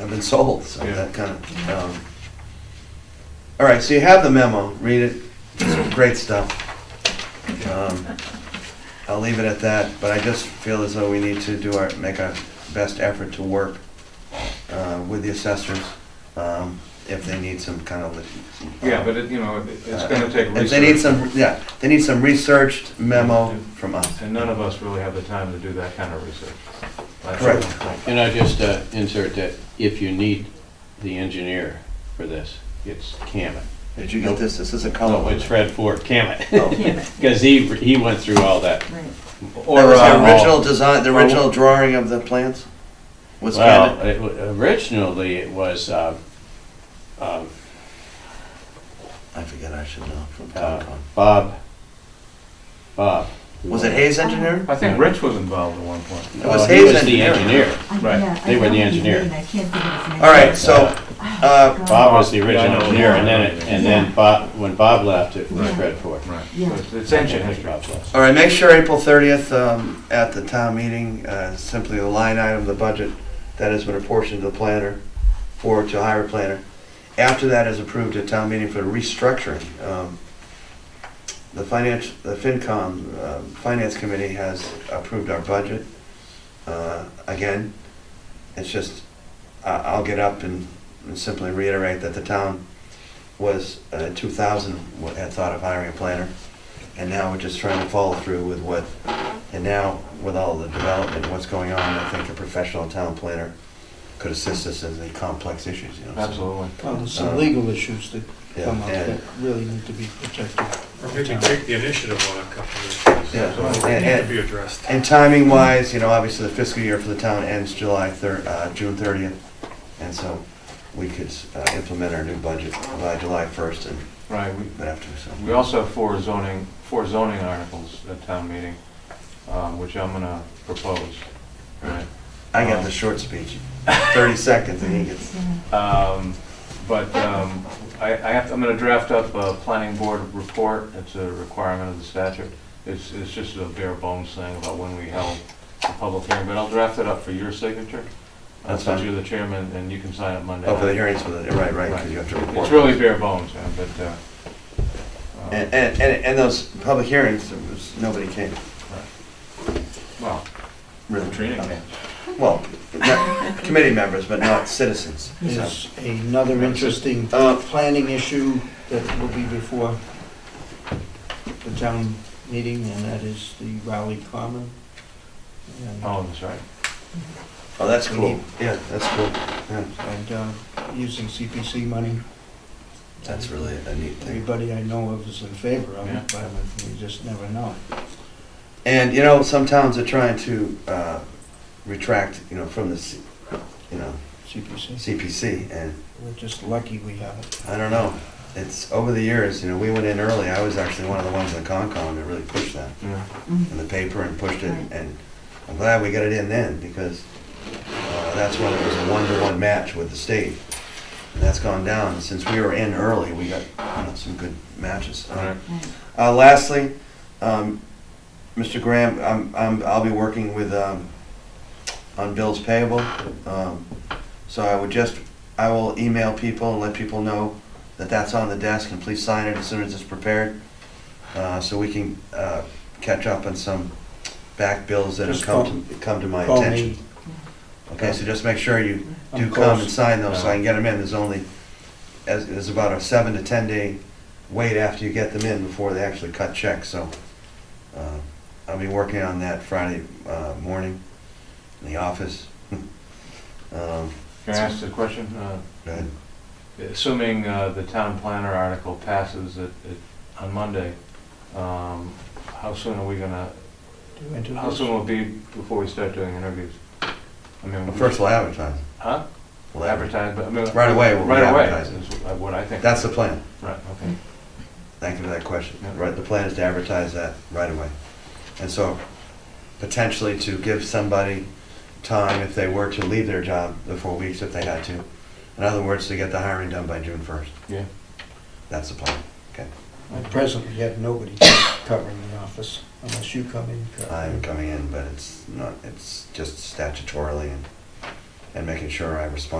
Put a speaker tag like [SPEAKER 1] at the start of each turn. [SPEAKER 1] have been sold, so
[SPEAKER 2] Yeah.
[SPEAKER 1] that kind of, um. All right, so you have the memo, read it, It's great stuff. Um, I'll leave it at that, but I just feel as though we need to do our, make our best effort to work, uh, with the assessors, um, if they need some kind of. lit-
[SPEAKER 2] Yeah, but it, you know, it- it's
[SPEAKER 1] Uh,
[SPEAKER 2] gonna take
[SPEAKER 1] If they need
[SPEAKER 2] research,
[SPEAKER 1] some, yeah, they need some researched memo from us.
[SPEAKER 2] and none of us really have the time to do that kind of research. That's
[SPEAKER 1] Correct.
[SPEAKER 2] the point.
[SPEAKER 3] And I just uh, insert that if you need the engineer for this, it's Camet.
[SPEAKER 1] Did you get this? This is a color.
[SPEAKER 3] No, it's Fred Ford, Camet.
[SPEAKER 1] Oh.
[SPEAKER 4] Damn it,
[SPEAKER 3] Because he, he went through all that.
[SPEAKER 4] right.
[SPEAKER 1] That
[SPEAKER 2] Or,
[SPEAKER 1] was the
[SPEAKER 3] uh, Oh.
[SPEAKER 2] uh,
[SPEAKER 1] original design, the original drawing of the plans? Was
[SPEAKER 3] Well,
[SPEAKER 1] Camet?
[SPEAKER 3] it wa- originally it was, uh, um,
[SPEAKER 1] I forget, I should know from
[SPEAKER 3] uh,
[SPEAKER 1] Concom.
[SPEAKER 3] Bob, Bob.
[SPEAKER 1] Was it Hayes Engineering?
[SPEAKER 2] I think Rich was involved at one point.
[SPEAKER 1] It
[SPEAKER 3] No,
[SPEAKER 1] was
[SPEAKER 3] he
[SPEAKER 1] Hayes
[SPEAKER 3] was the
[SPEAKER 1] Engineering.
[SPEAKER 3] engineer.
[SPEAKER 4] I-
[SPEAKER 2] Right.
[SPEAKER 4] yeah, I
[SPEAKER 3] They were the
[SPEAKER 4] know his
[SPEAKER 3] engineer.
[SPEAKER 4] name, I can't think of his name. Oh,
[SPEAKER 1] All right, so, uh,
[SPEAKER 3] Bob was the
[SPEAKER 2] Yeah, I know.
[SPEAKER 3] original engineer, and then, it- and then Bob, when Bob left, it was
[SPEAKER 4] Right.
[SPEAKER 3] Fred Ford.
[SPEAKER 2] Right,
[SPEAKER 4] Yeah.
[SPEAKER 2] It's- it's ancient
[SPEAKER 3] Bob
[SPEAKER 2] history.
[SPEAKER 3] left.
[SPEAKER 1] all right, make sure April 30th um, at the town meeting, uh, simply the line item of the budget that has been apportioned to the planner, forward to hire a planner. After that is approved at town meeting for restructuring. Um, The finance, the FinCom, uh, Finance Committee has approved our budget. Uh, Again, it's just, I- I'll get up and and simply reiterate that the town was, uh, 2000, wa- had thought of hiring a planner. And now we're just trying to follow through with what, and now with all the development, what's going on, I think a professional town planner could assist us in the complex issues, you know. so-
[SPEAKER 2] Absolutely.
[SPEAKER 5] Well, there's Um, some legal issues that come up
[SPEAKER 1] Uh, Yeah, and-
[SPEAKER 5] that really need to be protected.
[SPEAKER 6] Or maybe take the initiative on a couple of
[SPEAKER 1] Yeah,
[SPEAKER 6] those,
[SPEAKER 1] and-
[SPEAKER 6] need to
[SPEAKER 1] and-
[SPEAKER 6] be addressed.
[SPEAKER 1] And timing wise, you know, obviously the fiscal year for the town ends July thir, uh, June thirtieth. And so we could, uh, implement our new budget by July first and
[SPEAKER 2] Right, we,
[SPEAKER 1] but after, so.
[SPEAKER 2] we also have four zoning, four zoning articles at town meeting, um, which I'm gonna propose. Right.
[SPEAKER 1] I got the short speech, thirty seconds and he gets,
[SPEAKER 2] Um, But um, I I have, I'm going to draft up a planning board report, it's a requirement of the statute. It's, it's just a bare bones thing about when we held the public hearing, but I'll draft it up for your signature. I'll
[SPEAKER 1] That's
[SPEAKER 2] send
[SPEAKER 1] fine.
[SPEAKER 2] you the chairman, and you can sign it Monday.
[SPEAKER 1] oh, for the
[SPEAKER 2] night.
[SPEAKER 1] hearings, for the, right, right, because you have to report.
[SPEAKER 2] It's really bare bones, yeah, but, uh, uh,
[SPEAKER 1] And, and, and and those public hearings, there was, nobody came,
[SPEAKER 2] well,
[SPEAKER 1] really.
[SPEAKER 2] Katrina can.
[SPEAKER 1] Well, not- committee members, but not citizens. So,
[SPEAKER 5] There's another interesting
[SPEAKER 1] Uh,
[SPEAKER 5] planning issue that will be before the town meeting, and that is the Raleigh Common. And-
[SPEAKER 2] Oh, that's right.
[SPEAKER 1] Oh, that's cool. Yeah, that's cool.
[SPEAKER 5] And uh, using CPC money.
[SPEAKER 1] That's really a neat thing.
[SPEAKER 5] Everybody I know of is in favor of it, but we just never know.
[SPEAKER 1] And, you know, some towns are trying to uh, retract, you know, from the, C- you know,
[SPEAKER 5] CPC,
[SPEAKER 1] CPC, and
[SPEAKER 5] we're just lucky we have it.
[SPEAKER 1] I don't know. It's, over the years, you know, we went in early. I was actually one of the ones in Concom that really pushed that
[SPEAKER 2] Yeah.
[SPEAKER 4] Mm.
[SPEAKER 1] in the paper and pushed it, and I'm glad we got it in then, because uh, that's when it was a one-to-one match with the state. And that's gone down. Since we were in early, we got, you know, some good matches.
[SPEAKER 2] All right.
[SPEAKER 4] Right.
[SPEAKER 1] Uh, lastly, um, Mr. Graham, I'm, I'm, I'll be working with, um, on bills payable. Um, so I would just, I will email people and let people know that that's on the desk and please sign it as soon as it's prepared. Uh, so we can, uh, catch up on some back bills that have
[SPEAKER 5] Just
[SPEAKER 1] come, to come to my
[SPEAKER 5] Call me.
[SPEAKER 1] attention. Okay, so just make sure you
[SPEAKER 5] I'm
[SPEAKER 1] do come and
[SPEAKER 5] close.
[SPEAKER 1] sign those so I can get them in. There's only, as, there's about a seven to 10 day wait after you get them in before they actually cut checks, so. uh, I'll be working on that Friday uh, morning in the office. Um,
[SPEAKER 2] Can I ask a question? Uh,
[SPEAKER 1] go ahead.
[SPEAKER 2] Assuming uh, the town planner article passes it it- on Monday, um, how soon are we gonna
[SPEAKER 5] Do interviews.
[SPEAKER 2] How soon will it be before we start doing interviews? I mean,
[SPEAKER 1] Well, First, we'll advertise.
[SPEAKER 2] Huh?
[SPEAKER 1] We'll
[SPEAKER 2] Advertise, but I mean.
[SPEAKER 1] Right away, we'll be
[SPEAKER 2] Right away,
[SPEAKER 1] advertising.
[SPEAKER 2] is what I think.
[SPEAKER 1] That's the plan.
[SPEAKER 2] Right, okay.
[SPEAKER 1] Thank you for that question.
[SPEAKER 2] Yeah.
[SPEAKER 1] Right, the plan is to advertise that right away. And so potentially to give somebody time if they were to leave their job, the four weeks if they had to. In other words, to get the hiring done by June first.
[SPEAKER 2] Yeah.
[SPEAKER 1] That's the plan.
[SPEAKER 5] At present, we have nobody covering the office unless you come in. Carl.
[SPEAKER 1] I'm coming in, but it's not, it's just statutorily and, and making sure I respond